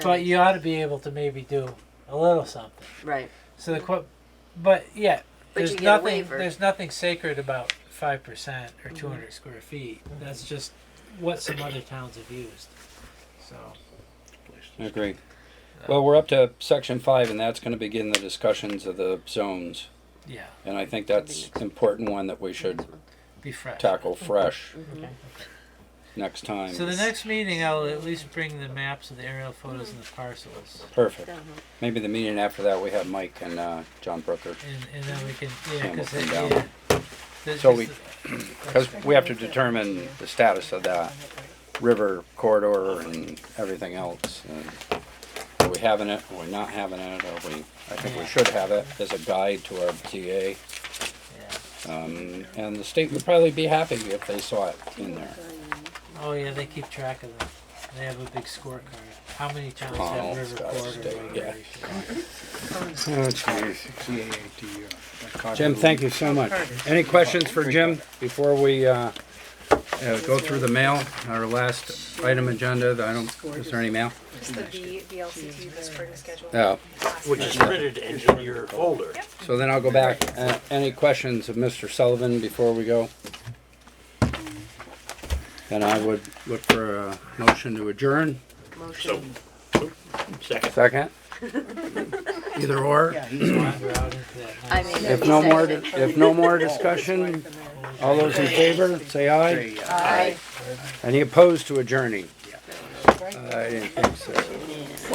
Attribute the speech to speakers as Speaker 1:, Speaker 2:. Speaker 1: But you ought to be able to maybe do a little something.
Speaker 2: Right.
Speaker 1: So the qu- but yeah,
Speaker 2: But you
Speaker 1: there's
Speaker 2: get a
Speaker 1: nothing.
Speaker 2: waiver. Mm-hmm.
Speaker 1: There's nothing sacred about five percent or two square feet. That's just what some other towns have used. So
Speaker 3: I agree. Well, we're up to section five, and that's gonna begin the discussions of the zones.
Speaker 1: yeah,
Speaker 3: And I think that's important one that we should
Speaker 1: be fresh.
Speaker 3: tackle fresh
Speaker 2: Mm-hmm.
Speaker 3: next time.
Speaker 1: So the next meeting, I'll at least bring the maps of the aerial photos and the parcels,
Speaker 3: Perfect. Maybe the meeting after that, we have Mike and, uh, John Brooker.
Speaker 1: and, and then we can yeah,
Speaker 3: Yeah, we'll
Speaker 1: because
Speaker 3: come
Speaker 1: yeah,
Speaker 3: down.
Speaker 1: The-
Speaker 3: So
Speaker 1: 'cause
Speaker 3: we-
Speaker 1: the-
Speaker 3: Cause we have to determine the status of that river corridor and everything else. and Are we having it, are we not having it, are we, I think we should have it as a guide to our TA.
Speaker 1: yeah.
Speaker 3: Um, and the state would probably be happy if they saw it in there.
Speaker 1: Oh yeah, they keep track of them. They have a big scorecard. How many towns
Speaker 3: Oh,
Speaker 1: have river
Speaker 3: Scottish
Speaker 1: corridor?
Speaker 3: State,
Speaker 1: whatever
Speaker 3: yeah.
Speaker 1: it is.
Speaker 3: Jim, thank you so much. Any questions for Jim before we uh, uh, go through the mail? Our last item agenda, I don't, is there any mail?
Speaker 4: Just the V, VLCT, the spring schedule.
Speaker 3: No.
Speaker 5: Which is printed in your folder.
Speaker 3: So then I'll go back. Uh, Any questions of Mr. Sullivan before we go? Then I would look for a motion to adjourn.
Speaker 5: So, second.
Speaker 3: Second? Either or?
Speaker 1: Yeah, he's wandered out into that
Speaker 2: I
Speaker 1: nice-
Speaker 2: mean,
Speaker 3: If no more, if no more discussion, all those in favor, say aye.
Speaker 2: I
Speaker 3: Any opposed to adjourning? Uh, I didn't think so.